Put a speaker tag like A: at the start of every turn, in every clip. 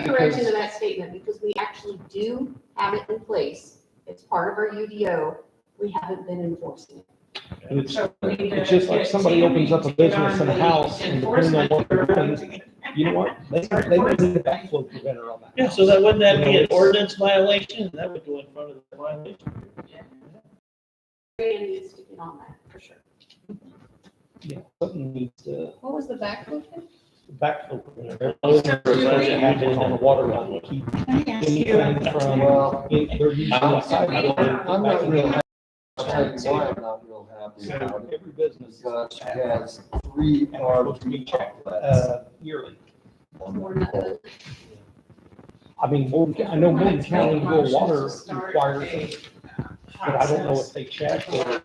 A: correction to that statement, because we actually do have it in place. It's part of our UDO. We haven't been enforcing it.
B: And it's,
C: So we need
B: it's
C: to
B: just like
C: get
B: somebody
C: Tammy
B: opens up a
C: to get
B: business
C: on
B: and a
C: the
B: house and depending on what they're
C: enforcement
B: doing, you know what? They, they might need a backflow preventer on that.
D: Yeah, so that, wouldn't that be an ordinance violation? That would go in front of the violation.
A: Brandon needs to get on that, for sure.
B: Yeah, Something needs to,
E: What was the back book?
B: backflow preventer.
D: Those are the ones that have been
B: On the water line, keep
E: Can I ask you,
B: anything from,
F: Well,
B: if they're using
F: I'm
B: a
F: not-
B: sidewalk.
F: I'm not real happy, I'll tell you
B: So
F: why I'm not real happy about it,
B: every business
F: because she has three RV outlets.
B: uh, yearly.
F: Um,
A: We're not gonna-
B: I mean, Morgan, I know Morgan County will water
C: To start
B: requires
C: a,
B: it,
C: uh,
B: but I don't know
C: process
B: if they check or,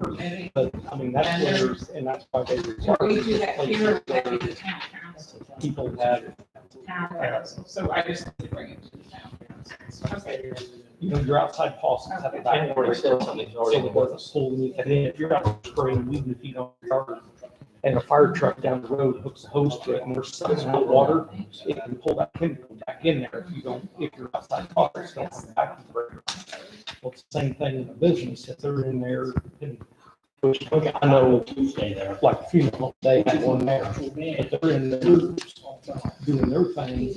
C: permitting.
B: but I mean, that's where, and that's why they require.
C: We do that here,
B: places
C: that is
B: where
C: the town council.
B: People have,
C: Town council, so I just need to bring it to the town council. Okay.
B: you know, your outside faucets have a
F: And where
B: backdoor,
F: it's
B: so
F: still
B: it
F: something already
B: doesn't pull anything in. If you're out spraying weed and feed on the yard, and a fire truck down the road hooks a hose to it and we're sucking out water, it can pull that chemical back in there if you don't, if your outside faucets don't have a backdoor. Well, it's the same thing in a business, if they're in there, and, which, okay, I know, like, funeral, they had one there, if they're in there doing their thing,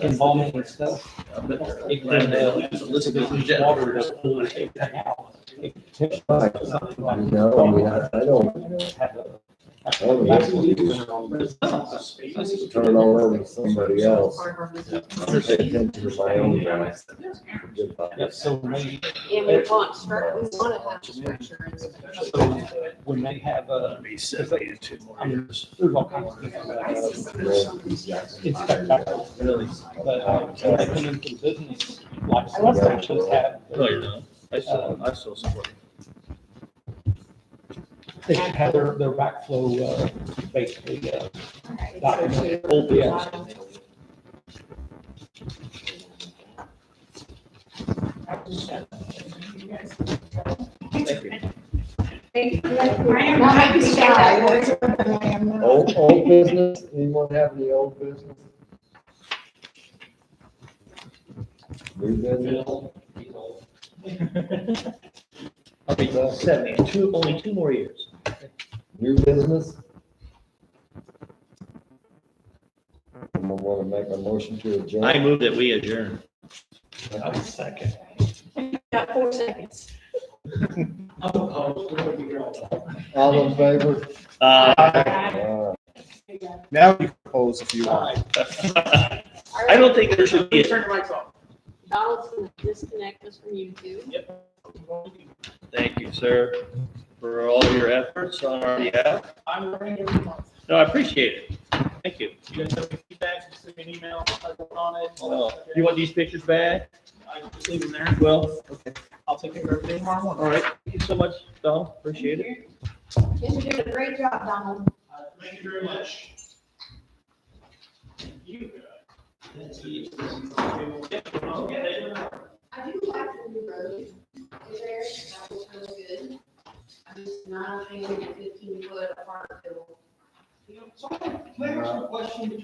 B: embalming and stuff. it can, uh, it's water to pull it out. It can potentially cause something like-
F: No, I mean, I, I don't,
B: have a-
F: I don't
B: That's-
F: turn it all over to somebody else.
A: Part of our business.
F: I'm paying attention to my own guys. Good luck.
B: that's So maybe,
A: And we want, stru- we want to have structure and stuff.
B: so when they have a, I mean, there's all kinds of different, uh, it's got back-
F: Really.
B: but uh, when they come into business, like some sections have,
D: No, you're not. I still, I still support it.
B: they should have their, their backflow, uh, basically, uh, document, old, yeah.
E: I am not shy.
F: Old, old business, anyone have any old business? New business?
D: I'll be seventy, two, only two more years.
F: New business? Someone wanna make a motion to adjourn?
D: I move that we adjourn.
B: Second.
A: Got four seconds.
F: All in favor?
D: Uh,
F: Uh,
G: Now you can close if you want.
D: I don't think there should be, a-
C: Turn the lights off.
A: Donald's gonna disconnect us from YouTube.
D: thank you, sir, for all your efforts on our behalf.
C: I'm running every month.
D: No, I appreciate it. Thank you.
C: You guys have any feedback, just send me an email, I'll work on it.
D: Oh, You want these pictures back?
C: I just leave them there.
D: Well,
C: I'll take care of everything tomorrow morning.
D: all right. Thank you so much, Donald. Appreciate it.
A: You're doing a great job, Donald.
C: Uh, Thank you very much. You. uh,